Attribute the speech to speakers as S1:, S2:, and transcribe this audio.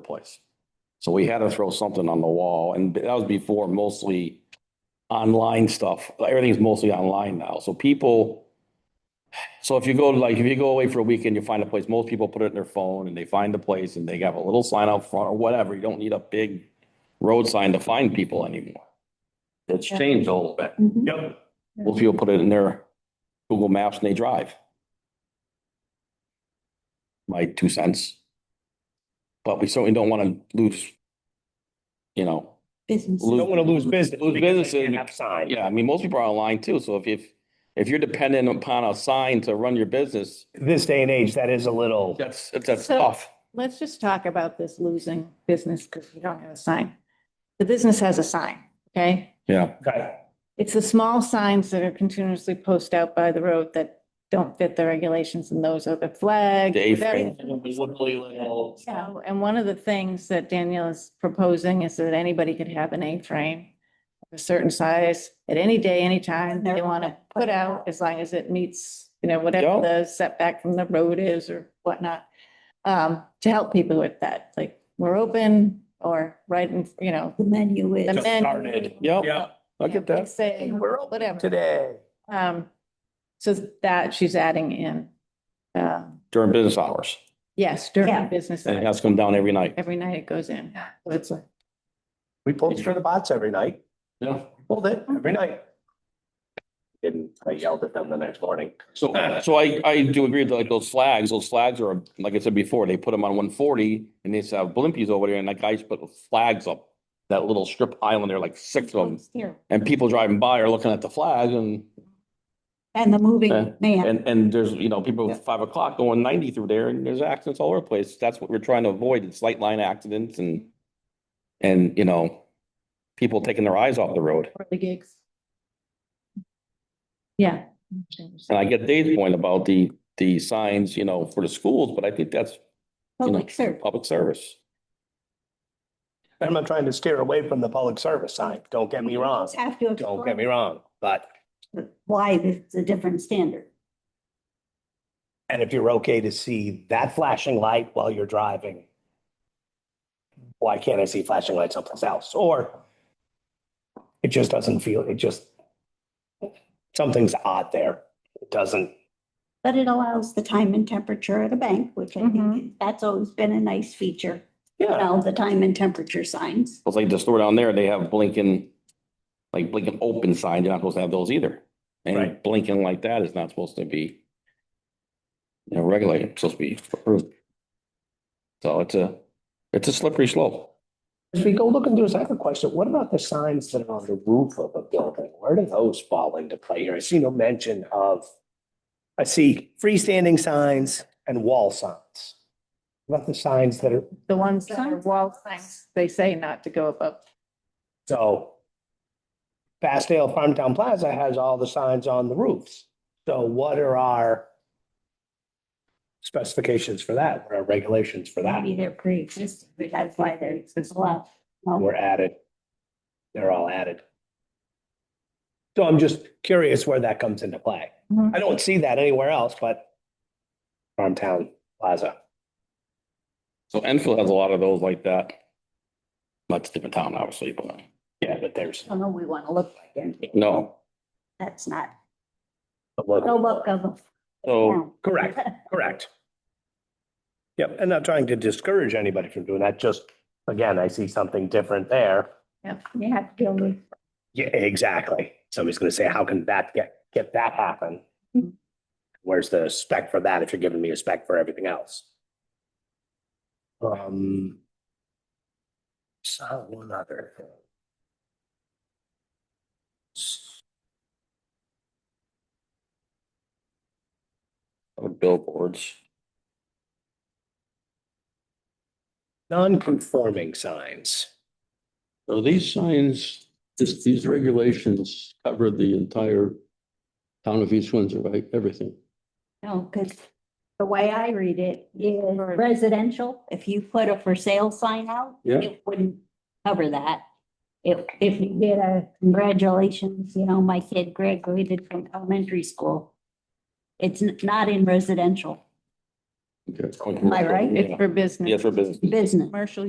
S1: place. So we had to throw something on the wall and that was before mostly online stuff. Everything's mostly online now. So people, so if you go like, if you go away for a weekend, you find a place, most people put it in their phone and they find the place and they have a little sign out front or whatever. You don't need a big road sign to find people anymore. It's changed a little bit.
S2: Mm-hmm.
S3: Mhm.
S4: Yep.
S1: Most people put it in their Google Maps and they drive. My two cents. But we certainly don't want to lose, you know,
S3: Business.
S1: Lose-
S4: Don't want to lose business.
S1: Lose
S4: because they
S1: businesses.
S4: can't Have signs.
S1: yeah, I mean, most people are online too. So if, if, if you're dependent upon a sign to run your business,
S4: This day and age, that is a little,
S1: that's, that's
S3: So-
S1: tough.
S3: Let's just talk about this losing business because you don't have a sign. The business has a sign, okay?
S1: Yeah.
S4: okay,
S3: It's the small signs that are continuously posted out by the road that don't fit the regulations and those are the flags.
S1: The A-frame.
S3: So, and one of the things that Danielle is proposing is that anybody could have an A-frame of a certain size at any day, any time they want to put out, as long as it meets, you know, whatever
S1: Yeah.
S3: the setback from the road is or whatnot. Um, to help people with that, like, we're open or right in, you know,
S2: The menu
S3: the
S2: is,
S4: Just
S3: menu.
S4: started.
S1: Yep,
S4: yeah,
S1: I get
S3: Yeah, they
S1: that.
S3: Say, whatever.
S4: today.
S3: Um, so that she's adding in, um,
S1: During business hours.
S3: yes,
S2: Yeah.
S3: during business,
S1: And it
S3: hours.
S1: has to come down every night.
S3: every night it goes in. So it's like-
S4: We pulled for the bots every night,
S1: Yeah.
S4: pulled it every night. Didn't, I yelled at them the next morning.
S1: So, so I, I do agree with like those flags, those flags are, like I said before, they put them on one forty and they used to have blimpies over there and that guy used to put flags up. That little strip island there, like six of them,
S3: Here.
S1: and people driving by are looking at the flag and,
S2: and the
S1: Uh,
S2: moving man,
S1: and, and there's, you know, people at five o'clock going ninety through there and there's accidents all over the place. That's what we're trying to avoid, it's light line accidents and, and, you know, people taking their eyes off the road.
S3: For the gigs. Yeah.
S1: And I get Dave's point about the, the signs, you know, for the schools, but I think that's
S2: public service.
S1: public service.
S4: I'm not trying to steer away from the public service sign, don't get me wrong,
S2: Have to
S4: don't get me
S2: explain
S4: wrong, but,
S2: why it's a different standard.
S4: and if you're okay to see that flashing light while you're driving, why can't I see flashing lights someplace else? Or it just doesn't feel, it just, something's odd there. It doesn't,
S2: But it allows the time and temperature at a bank, which I think, is-
S3: Mhm.
S2: that's always been a nice feature. You
S4: yeah,
S2: know, the time and temperature signs.
S1: It's like the store down there, they have blinking, like blinking open signs. You're not supposed to have those either. And
S4: Right.
S1: blinking like that is not supposed to be, you know, regulated, It's supposed to be approved. So it's a, it's a slippery slope.
S4: If we go look into this, I have a question. What about the signs that are on the roof of a building? Where do those fall into play here? I see no mention of. I see freestanding signs and wall signs. What About the signs that are,
S3: The ones that are wall signs, they say not to go above.
S4: so. Fastdale Farmtown Plaza has all the signs on the roofs. So what are our specifications for that? What are our regulations for that?
S2: Maybe they're pre-existing, but that's why they're allowed.
S4: were added. They're all added. So I'm just curious where that comes into play.
S3: Mhm.
S4: I don't see that anywhere else, but Farmtown Plaza.
S1: So Enfield has a lot of those like that. That's a different town, obviously, but
S4: Yeah, but there's
S2: I don't know, we want to look like it.
S1: no.
S2: That's not,
S4: a local.
S2: no look of a
S1: So,
S2: town.
S4: Correct, correct. Yep, and not trying to discourage anybody from doing that, just, again, I see something different there.
S2: You have to deal with.
S4: Yeah, exactly. Somebody's gonna say, how can that get, get that happen?
S2: Mhm.
S4: Where's the spec for that if you're giving me a spec for everything else? Um. Saw one other. thing.
S1: billboards,
S4: Non-conforming signs.
S5: So these signs, this, these regulations cover the entire town of East Windsor, right? Everything.
S2: No, because the way I read it is residential, if you put a for sale sign out,
S5: Yeah.
S2: it wouldn't cover that. If, if you did a congratulations, you know, my kid graduated from elementary school. It's n- not in residential
S5: Okay.
S2: Am I right?
S3: It's for business.
S1: yes, for business.
S2: business.
S3: Commercial